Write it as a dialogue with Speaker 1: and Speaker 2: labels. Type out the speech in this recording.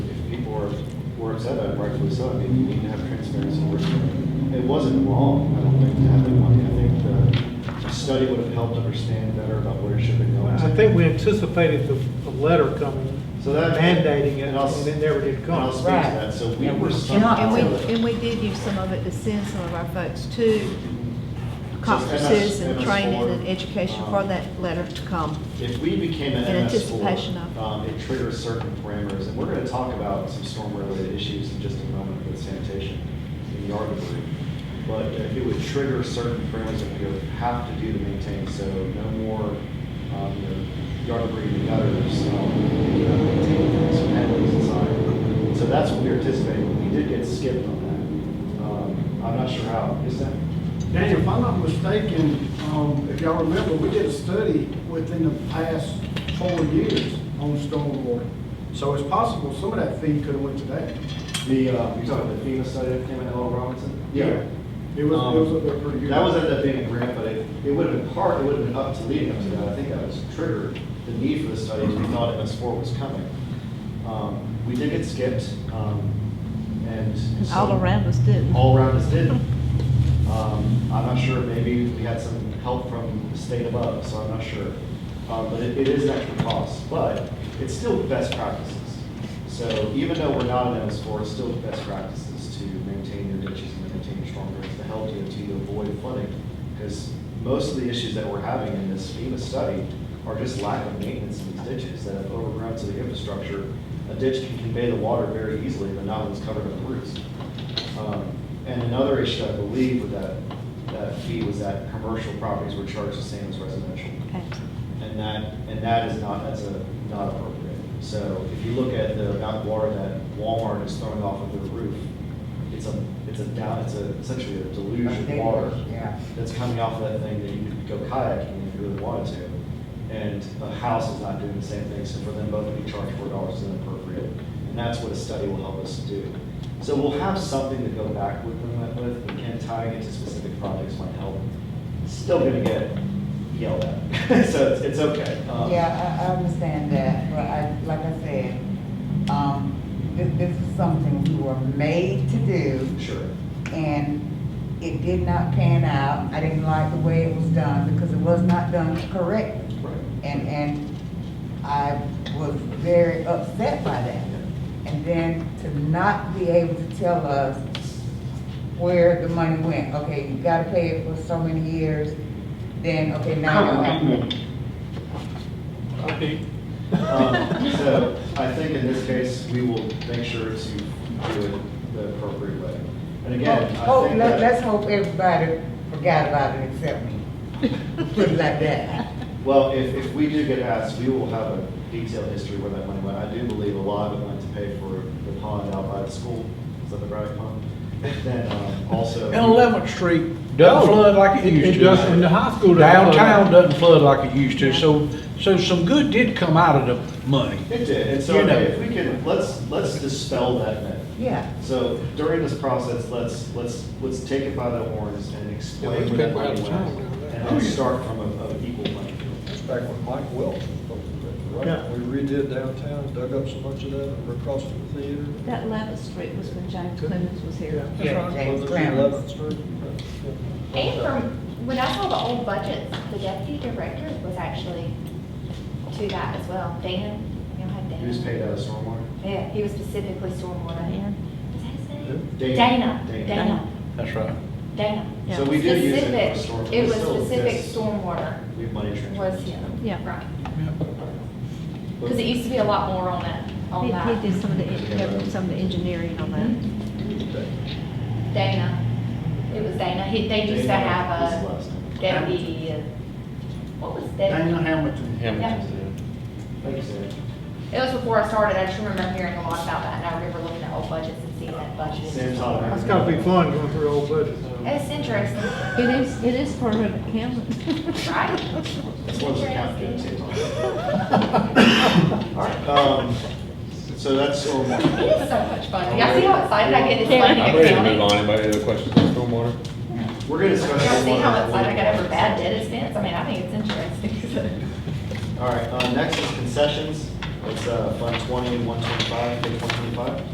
Speaker 1: where it's at, I'm rightfully so, I mean, you need to have transparency where it's at. It wasn't wrong, I don't think, to have that money, I think the study would have helped understand better about where it should have gone.
Speaker 2: I think we anticipated the, the letter coming,
Speaker 1: So that-
Speaker 2: mandating it,
Speaker 1: and
Speaker 2: and
Speaker 1: I'll-
Speaker 2: it never did
Speaker 1: And I'll
Speaker 2: come.
Speaker 1: speak to that, so we
Speaker 3: Right.
Speaker 1: were.
Speaker 3: And
Speaker 4: And we,
Speaker 1: something-
Speaker 4: and we did use some of it to send some of our folks to conferences
Speaker 1: MS-
Speaker 4: and
Speaker 1: MS4,
Speaker 4: training and education for
Speaker 1: um,
Speaker 4: that letter to come.
Speaker 1: If we became an
Speaker 4: In
Speaker 1: MS four,
Speaker 4: anticipation of.
Speaker 1: um, it triggers certain parameters, and we're gonna talk about some storm-related issues in just a moment with sanitation and yard debris. But if it would trigger certain parameters that we would have to do to maintain, so no more, um, you know, yard debris in the gutters, um, you know, maintaining some penalties inside. So that's what we were anticipating, we did get skipped on that. Um, I'm not sure how, is that?
Speaker 5: Daniel, if I'm not mistaken, um, if y'all remember, we did a study within the past four years on stormwater. So it's possible some of that fee could have went to that.
Speaker 1: The, uh, you're talking about the FEMA study that came in L. Robinson?
Speaker 5: It was, it was up there pretty good.
Speaker 1: Um, That was ended up being a grant, but it, it would have been part, it would have been up to leading up to that. I think that was triggered, the need for the study, because we thought MS four was coming. Um, We did get skipped, um, and.
Speaker 4: And
Speaker 1: so-
Speaker 4: all around us didn't.
Speaker 1: All around us did. Um, I'm not sure, maybe we had some help from the state above, so I'm not sure. Um, but it, it is an extra cost, but it's still best practices. So even though we're not an MS four, it's still best practices to maintain your ditches and maintain your storm drains to help DOT to avoid flooding. Because most of the issues that we're having in this FEMA study are just lack of maintenance in these ditches that have overgrown to the infrastructure. A ditch can convey the water very easily, but not when it's covered with roots. Um, And another issue, I believe, with that, that fee was that commercial properties were charged the same as residential. And that, and that is not, that's a, not appropriate. So if you look at the amount of water that Walmart is throwing off of their roof, it's a, it's a down, it's a, essentially a deluge of water
Speaker 3: Yeah.
Speaker 1: that's coming off of that thing that you could go kayaking if you really wanted to. And a house is not doing the same thing, so for them both to be charged four dollars is inappropriate. And that's what a study will help us do. So we'll have something to go back with them with, but again, tying it to specific projects might help. Still gonna get yelled at, so it's, it's okay. Um,
Speaker 3: Yeah, I, I understand that, but I, like I said, um, this, this is something we were made to do,
Speaker 1: Sure.
Speaker 3: and it did not pan out. I didn't like the way it was done, because it was not done correctly.
Speaker 1: Right.
Speaker 3: And, and I was very upset by that. And then to not be able to tell us where the money went. Okay, you gotta pay it for so many years, then, okay, now you don't have money.
Speaker 2: Okay.
Speaker 1: Um, So I think in this case, we will make sure to do it the appropriate way. And again, I
Speaker 3: Oh,
Speaker 1: think
Speaker 3: let-
Speaker 1: that.
Speaker 3: let's hope everybody forgot about it except me. Put it like that.
Speaker 1: Well, if, if we do get asked, we will have a detailed history where that money went. I do believe a lot of it went to pay for the pond out by the school, is that the Braddock Pond? Then um, also.
Speaker 6: And Eleventh Street
Speaker 7: No.
Speaker 6: doesn't flood like it
Speaker 2: It-
Speaker 6: used
Speaker 2: it doesn't- and the
Speaker 6: to.
Speaker 2: high school doesn't flood.
Speaker 6: Downtown doesn't flood like it used to, so, so some good did come out of the money.
Speaker 1: It did, and so
Speaker 6: You know.
Speaker 1: if we can, let's, let's dispel that myth.
Speaker 3: Yeah.
Speaker 1: So during this process, let's, let's, let's take it by the horns and explain
Speaker 2: Yeah,
Speaker 1: where
Speaker 2: let's
Speaker 1: that
Speaker 2: pick
Speaker 1: money
Speaker 2: out
Speaker 1: went.
Speaker 2: the town down there.
Speaker 1: And
Speaker 6: Oh,
Speaker 1: then
Speaker 6: yeah.
Speaker 1: start from a, of equal money. field.
Speaker 7: That's back when Mike Welch was voting, right?
Speaker 2: Yeah.
Speaker 7: We redid downtown, dug up so much of that over across from the theater.
Speaker 4: That Levitt Street was when James Clemens was here.
Speaker 3: Yeah, James
Speaker 7: Whether it's
Speaker 3: Clemens.
Speaker 7: Eleventh Street. right, yeah.
Speaker 8: And from, when I saw the old budgets, the deputy director was actually to that as well. Dan, you know, had Dan.
Speaker 1: He was paid out of stormwater?
Speaker 8: Yeah, he was specifically stormwater.
Speaker 4: Dan.
Speaker 8: Is that his name?
Speaker 1: Dana.
Speaker 8: Dana,
Speaker 1: Dana.
Speaker 8: Dana,
Speaker 6: That's right.
Speaker 8: Dana.
Speaker 4: Yeah.
Speaker 1: So we did use it for
Speaker 8: Specific-
Speaker 1: storm.
Speaker 8: It was
Speaker 1: still
Speaker 8: specific
Speaker 1: exists.
Speaker 8: stormwater
Speaker 1: We have money transfer.
Speaker 8: was him.
Speaker 4: Yeah.
Speaker 8: Right.
Speaker 1: But-
Speaker 8: Because it used to be a lot more on that, on
Speaker 4: He,
Speaker 8: that.
Speaker 4: he did some of the, some of the engineering on that.
Speaker 8: Dana. It was Dana. He, they used to
Speaker 1: Dana
Speaker 8: have
Speaker 1: was the
Speaker 8: a
Speaker 1: last name.
Speaker 8: deputy, uh, what was that?
Speaker 5: Daniel Hamilton.
Speaker 8: Yeah.
Speaker 1: Thank you, Sarah.
Speaker 8: It was before I started, I just remember hearing a lot about that, and I remember looking at old budgets and seeing that budget.
Speaker 1: Sam's all right.
Speaker 2: That's gotta be fun going through old budgets.
Speaker 8: It's interesting,
Speaker 4: It is, it is part of Hamlin.
Speaker 8: right?
Speaker 1: That's one of the captains. Um, So that's um,
Speaker 8: It
Speaker 1: stormwater.
Speaker 8: is so much fun. Y'all see how excited I get this money accounting?
Speaker 9: I'm ready to move on. Anybody have questions on stormwater?
Speaker 1: We're gonna discuss.
Speaker 8: Y'all see how
Speaker 1: stormwater.
Speaker 8: excited I get over bad debt expense? I mean, I think it's interesting.
Speaker 1: All right, uh, next is concessions. It's, uh, Fund 20, 125, page 125.